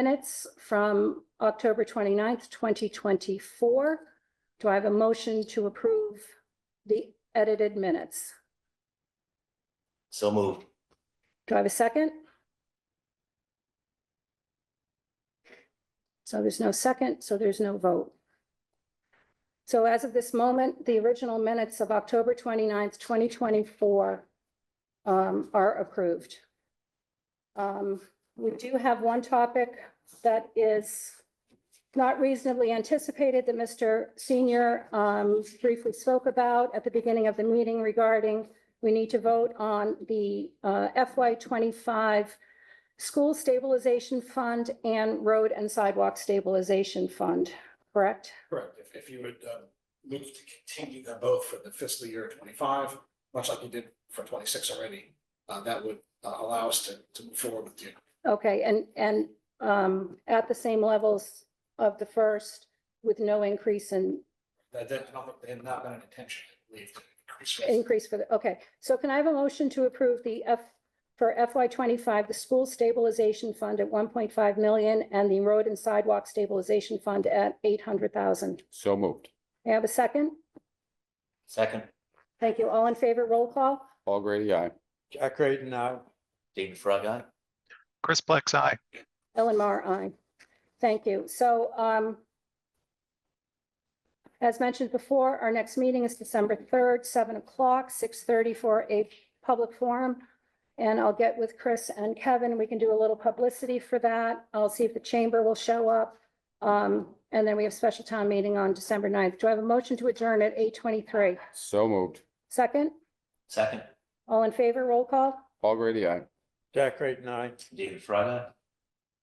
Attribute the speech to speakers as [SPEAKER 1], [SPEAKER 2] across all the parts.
[SPEAKER 1] minutes from October 29th, 2024. Do I have a motion to approve the edited minutes?
[SPEAKER 2] So moved.
[SPEAKER 1] Do I have a second? So there's no second, so there's no vote. So as of this moment, the original minutes of October 29th, 2024 um, are approved. Um, We do have one topic that is not reasonably anticipated that Mr. Senior um, briefly spoke about at the beginning of the meeting regarding we need to vote on the uh, FY twenty-five School Stabilization Fund and Road and Sidewalk Stabilization Fund, correct?
[SPEAKER 3] Correct. If, if you would, um, move to continue them both for the fiscal year twenty-five, much like you did for twenty-six already, uh, that would uh, allow us to, to move forward with the
[SPEAKER 1] Okay, and, and um, at the same levels of the first with no increase in,
[SPEAKER 3] That, that, I don't think, they have not been an intention, I believe, to increase rates.
[SPEAKER 1] increase for the, okay. So can I have a motion to approve the F, for FY twenty-five, the School Stabilization Fund at one point five million and the Road and Sidewalk Stabilization Fund at eight hundred thousand?
[SPEAKER 4] So moved.
[SPEAKER 1] May I have a second?
[SPEAKER 2] Second,
[SPEAKER 1] Thank you. All in favor, roll call?
[SPEAKER 4] Paul Grady, aye.
[SPEAKER 5] Jack Creighton, aye.
[SPEAKER 2] David Frog, aye.
[SPEAKER 6] Chris Plex, aye.
[SPEAKER 1] Ellen Mar, aye. Thank you. So um, as mentioned before, our next meeting is December 3rd, 7 o'clock, 6:30 for a public forum. And I'll get with Chris and Kevin. We can do a little publicity for that. I'll see if the chamber will show up. Um, And then we have special town meeting on December 9th. Do I have a motion to adjourn at 8:23?
[SPEAKER 4] So moved.
[SPEAKER 1] Second?
[SPEAKER 2] Second,
[SPEAKER 1] All in favor? Roll call?
[SPEAKER 4] Paul Grady, aye.
[SPEAKER 5] Jack Creighton, aye.
[SPEAKER 2] David Frog, aye.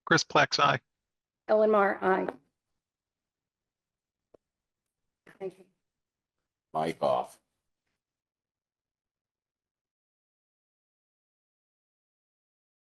[SPEAKER 6] Chris Plex, aye.
[SPEAKER 1] Ellen Mar, aye. Thank you.
[SPEAKER 4] Mike off.